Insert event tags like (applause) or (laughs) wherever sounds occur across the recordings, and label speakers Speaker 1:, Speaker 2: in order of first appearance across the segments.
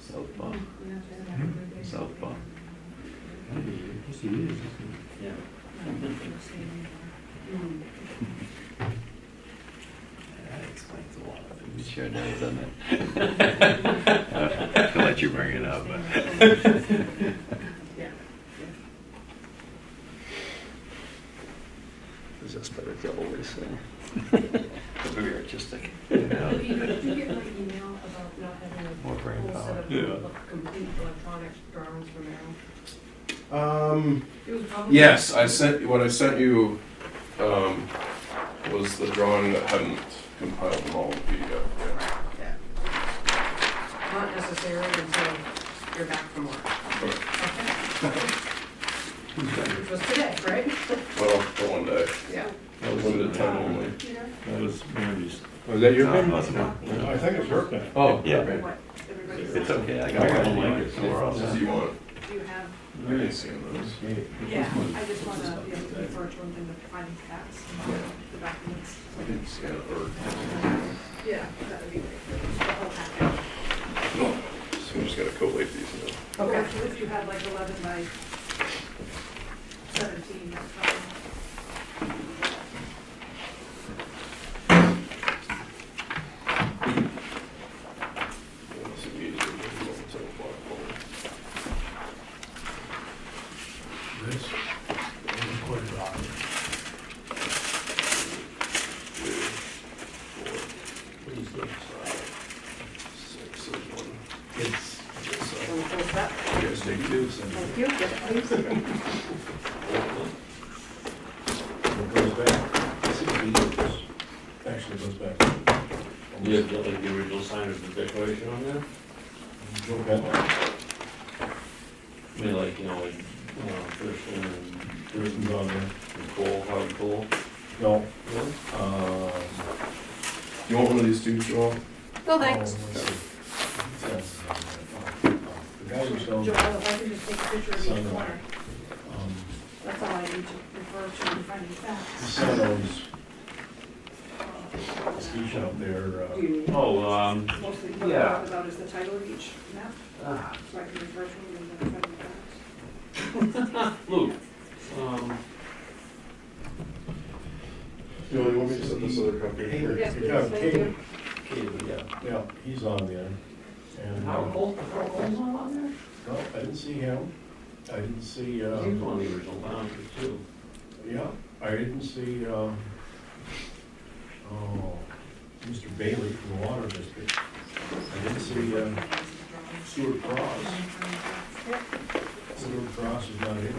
Speaker 1: Southpaw. Southpaw.
Speaker 2: Yes, he is.
Speaker 3: Yeah. That explains a lot of
Speaker 1: It
Speaker 3: things.
Speaker 1: sure does, doesn't it? (laughs) I'll let you bring it up. It's just better to always (laughs) say. Very artistic.
Speaker 4: Did you did you get my email about not having
Speaker 1: More brain
Speaker 4: a whole set
Speaker 1: power.
Speaker 4: of
Speaker 2: Yeah.
Speaker 4: of complete electronic drawings from Merrill?
Speaker 5: Um,
Speaker 4: It was probably.
Speaker 5: yes, I sent, what I sent you, um, was the drawing that hadn't compiled them all in PDF yet.
Speaker 4: Not necessarily until you're back from work.
Speaker 5: Okay,
Speaker 4: Which was today, right?
Speaker 5: Well, for one day,
Speaker 4: Yeah.
Speaker 2: That was,
Speaker 5: limited time only.
Speaker 2: that was Randy's.
Speaker 6: Was Oh, that your
Speaker 3: Uh-huh.
Speaker 1: No,
Speaker 6: pen?
Speaker 1: it wasn't mine.
Speaker 6: I
Speaker 4: think it's your
Speaker 6: pen. Oh.
Speaker 1: Yeah.
Speaker 6: okay.
Speaker 4: What, everybody
Speaker 1: It's
Speaker 4: said?
Speaker 1: okay, I
Speaker 2: I
Speaker 1: got
Speaker 2: got
Speaker 1: one
Speaker 2: one.
Speaker 1: later, so we're all
Speaker 5: So
Speaker 1: set.
Speaker 5: you want,
Speaker 4: Do you have,
Speaker 5: I didn't see those.
Speaker 4: yeah, I just want to be able to refer to them and find the facts and the documents.
Speaker 5: I didn't scan it, or,
Speaker 4: Yeah, that would be great. The whole package.
Speaker 5: so we just gotta collate these
Speaker 4: Okay. So if you had like eleven by seventeen, that's fine.
Speaker 5: now. So we need to do them until black hole. Two, four, six, there's one. Yes,
Speaker 4: So we'll close that.
Speaker 5: uh, You guys take two, so-
Speaker 4: Thank you. Yes, please.
Speaker 6: It goes back. Actually, it goes back.
Speaker 3: You have got like the original sign of the declaration on there?
Speaker 6: Joe Bentley.
Speaker 3: I mean, like, you know, like, you know, first
Speaker 6: There
Speaker 3: one,
Speaker 6: isn't on there.
Speaker 3: and coal, hard coal.
Speaker 6: No,
Speaker 3: Really?
Speaker 6: um.
Speaker 5: You want one of these two, Joel?
Speaker 4: No,
Speaker 5: Oh,
Speaker 6: oh, The guy who sells,
Speaker 4: Joel, if I could just take a picture of each
Speaker 6: Some-
Speaker 4: corner,
Speaker 6: um,
Speaker 4: that's all I need to refer to in finding facts.
Speaker 6: sells ski shop there,
Speaker 4: Do you
Speaker 6: uh,
Speaker 4: need,
Speaker 3: Oh, um,
Speaker 4: mostly what I talk about is the title of each map,
Speaker 3: ah,
Speaker 4: so I can refer to them and then finding facts?
Speaker 3: Luke, um,
Speaker 5: You only want me to set this other copy? here?
Speaker 4: Yes,
Speaker 6: Good job,
Speaker 4: please, thank you.
Speaker 3: okay, but yeah.
Speaker 6: yeah, he's on there. And,
Speaker 3: Howard
Speaker 6: uh,
Speaker 3: Cole, Howard Cole's not on there?
Speaker 6: no, I didn't see him. I didn't see, uh,
Speaker 3: He was one of the original founders too.
Speaker 6: yeah, I didn't see, uh, oh, Mr. Bailey from the Water District. I didn't see, uh, Stuart Cross. Stuart Cross is not here.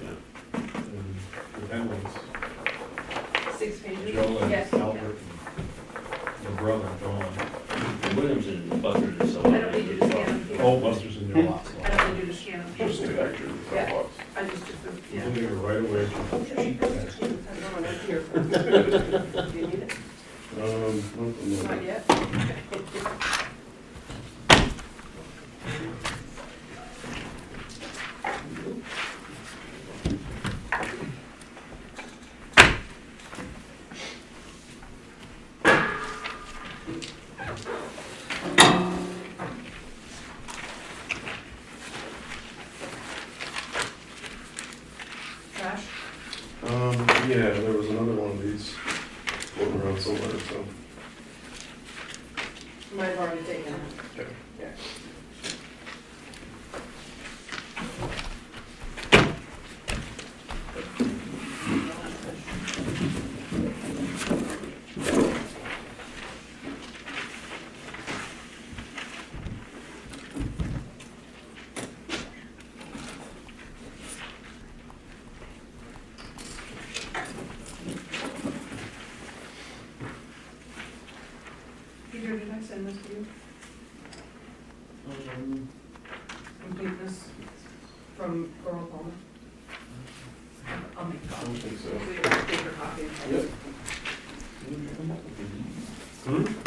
Speaker 3: Yeah.
Speaker 6: And the Penwells,
Speaker 4: Six pages?
Speaker 6: Joe and
Speaker 4: Yes.
Speaker 6: Albert and the brother, Dawn.
Speaker 3: Williamson and Butter and so
Speaker 4: I
Speaker 3: on.
Speaker 4: don't need you to scan them here.
Speaker 6: Oh, Buster's in their lots.
Speaker 4: I don't need you to scan them
Speaker 5: Just
Speaker 4: here.
Speaker 5: take actually
Speaker 4: Yeah.
Speaker 5: that box.
Speaker 4: I just took them,
Speaker 6: We'll
Speaker 4: yeah.
Speaker 6: get it right away.
Speaker 4: I'm right here. Do you need it?
Speaker 5: Um, no, no, no.
Speaker 4: Not yet? Trash?
Speaker 5: Um, yeah, there was another one of these floating around somewhere, so.
Speaker 4: You might have already taken it.
Speaker 5: Okay.
Speaker 4: Peter, did I send this to you?
Speaker 3: Um,
Speaker 4: Completeness from Earl Palmer? I'll make
Speaker 5: I
Speaker 4: copies.
Speaker 5: don't think so.
Speaker 4: So you have a paper copy.
Speaker 5: Yep.
Speaker 3: what did you come up with?
Speaker 5: Hmm?